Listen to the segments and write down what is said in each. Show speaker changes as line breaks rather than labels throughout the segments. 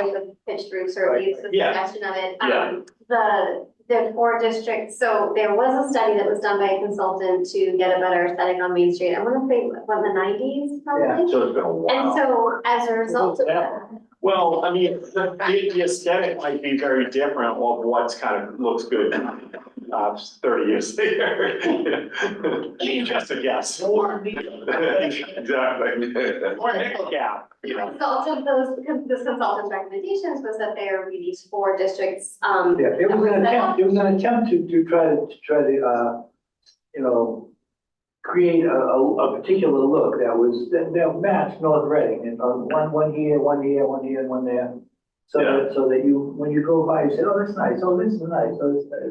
with the pitched roofs or at least the
Yeah.
suggestion of it.
Yeah.
Um, The, the four districts, so there was a study that was done by a consultant to get a better aesthetic on Main Street. I wanna say, what, in the nineties probably?
So it's been a
And
while.
so as a result of that,
Well, I mean, the, the aesthetic might be very different of what's kind of looks good, uh, thirty years later. Just a guess. Exactly. Or nickel gap, you know.
result of those, because this consultant's recommendations was that there are these four districts, um.
Yeah, it
that
was
were
an
set up.
attempt, it was an attempt to, to try to, to try to, uh, you know, create a, a, a particular look that was, that, that matched North Reading, and uh, one, one here, one here, one here, and one there. So
Yeah.
that, so that you, when you go by, you say, oh, that's nice, oh, this is nice, oh, this, that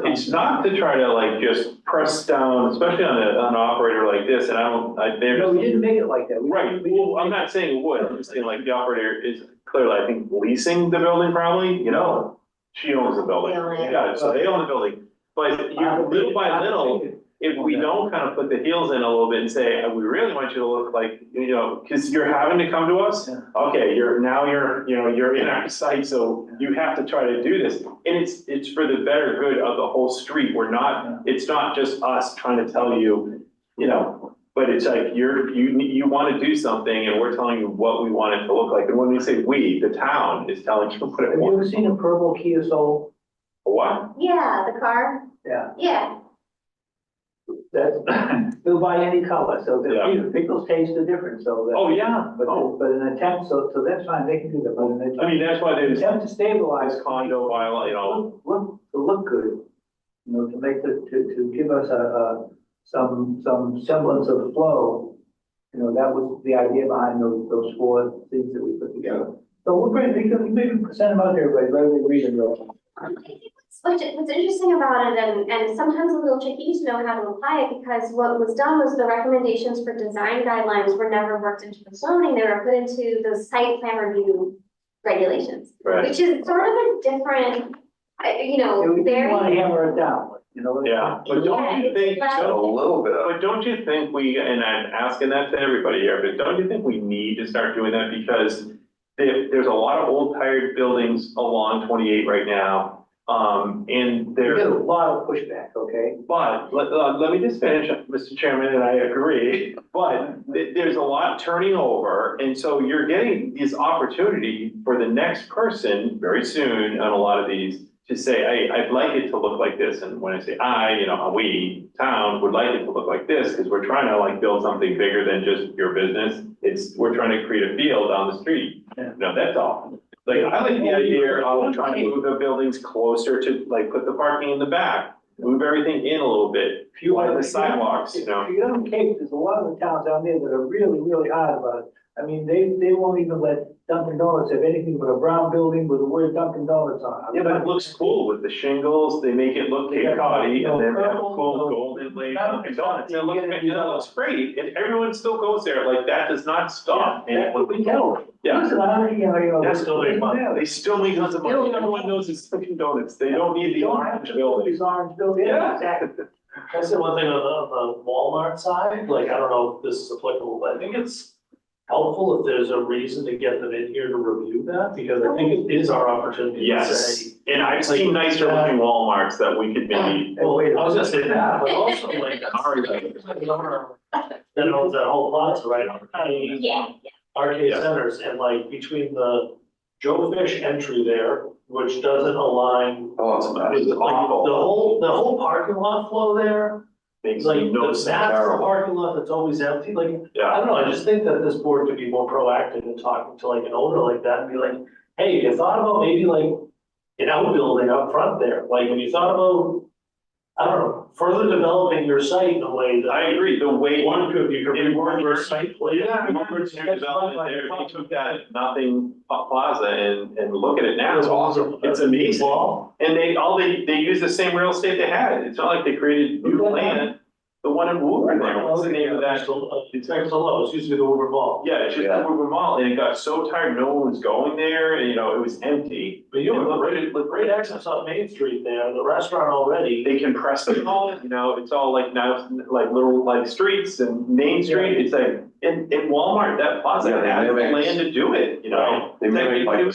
Cause it's not to try to like just press down, especially on a, on an operator like this, and I don't, I, they're.
No, we didn't make it like that. We-
Right,
we-
well, I'm not saying it would, I'm just saying like the operator is clearly, I think, leasing the building probably, you know? She owns the building,
They own it.
yeah, so they own the building, but you, little by little, if we don't kind of put the heels in a little bit and say, "Uh, we really want you to look like, you know, cause you're having to come to us.
Yeah.
Okay, you're, now you're, you know, you're in our site, so you have to try to do this, and it's, it's for the better good of the whole street, we're not, it's not just us trying to tell you, you know, but it's like, you're, you, you wanna do something, and we're telling you what we want it to look like, and when we say we, the town is telling you what
Have
it
you
wants,
ever seen a purple Kia Soul?
what?
Yeah, the car,
Yeah,
yeah,
that's, they'll buy any color, so
Yeah.
the people's tastes are different, so that.
Oh, yeah,
But,
oh,
but an attempt, so, so that's fine, they can do that, but an attempt.
I mean, that's why
An
there's
Attempt to stabilize.
this condo bylaw, you know,
Look, look, to look good, you know, to make the, to, to give us a, a, some, some semblance of flow. You know, that was the idea behind those, those four things that we put together. So we're great, we can, maybe send them out here, right, right, we read them.
Um, I think what's- What's, what's interesting about it and, and sometimes a little tricky to know how to apply it because what was done was the recommendations for design guidelines were never worked into the zoning, they were put into the site plan review regulations,
right?
which is sort of a different, I- you
Yeah,
know,
We didn't wanna
very.
hammer it down, you know.
Yeah, but don't you think,
Yeah,
so?
little bit
But don't you think we, and I'm asking that to everybody here, but don't you think we need to start doing that because there, there's a lot of old tired buildings along twenty-eight right now, um, and
We
they're.
get a lot of pushback, okay?
But let, uh, let me just finish, Mr. Chairman, and I agree, but th- there's a lot turning over. And so you're getting this opportunity for the next person very soon on a lot of these to say, I, I'd like it to look like this. And when I say I, you know, we, town, would like it to look like this, because we're trying to like build something bigger than just your business. It's, we're trying to create a feel down the street.
Yeah.
No, that's all. Like, I like the idea of trying to move the buildings closer to, like, put the parking in the back move everything in a little bit,
If you
Like
want
the sidewalks, you know?
If you go to Cape, there's a lot of the towns down there that are really, really hard about it. I mean, they, they won't even let Dunkin' Donuts have anything but a brown building with the word Dunkin' Donuts on it.
Yeah, but it looks cool with the shingles, they make it look
Yeah.
cakey and then have
Purple,
cool
no.
golden lace.
That-
It looks, it
you get
looks,
it,
you know, it looks great, and everyone still goes there, like, that does not stop. And it
That's what
would-
we tell them.
Yeah,
Listen, I don't, you know, you know.
that's still
yeah,
make money, they still make tons of
Still
money,
don't-
everyone knows it's Dunkin' Donuts, they don't need the
you don't have
orange
to put
building.
These orange buildings,
Yeah.
yeah, exactly.
Can I say one thing on the, on the Walmart side? Like, I don't know if this is applicable, but I think it's helpful if there's a reason to get them in here to review that, because I think it is our opportunity to say.
Yes, and I've seen nicer looking Walmarts that we could maybe,
Well, I was gonna say that, but also like.
Sorry.
The owner That owns that whole plaza, right? Arcade-
Yeah,
Arcade
Yeah.
centers and like between the Joe Fish entry there, which doesn't align.
Oh, it's
with like the
awful,
whole, the whole parking lot flow there.
makes
It's like,
no
that's
sense.
the parking lot that's always empty, like, I
Yeah,
don't know, I just think that this board could be more proactive in talking to like an owner like that and be like, hey, you thought about maybe like an outbuilding up front there, like, have you thought about, I don't know, further developing your site in a way that.
I agree, the way.
One could, you could
It
reword your
works.
site plan.
Yeah, remember to develop it there, they took that nothing pla- plaza and, and look at it now, it's awesome, it's amazing.
Well,
And they, all they, they use the same real estate they had, it's not like they created new land, the one in Woburn there, what's the name of that?
It's Exalo, it's used to be the Uber Mall,
Yeah, it's just
Yeah.
Woburn Mall, and it got so tired, no one was going there, and you know, it was empty.
but you have a great,
Look,
great access on Main Street there, the restaurant already.
They compressed it all, you know, it's all like now, like little like streets and Main Street, it's like, in, in Walmart, that plaza
Yeah, they
had the
mimicked-
land to do it, you know?
Right.
They mimicked, like,
It was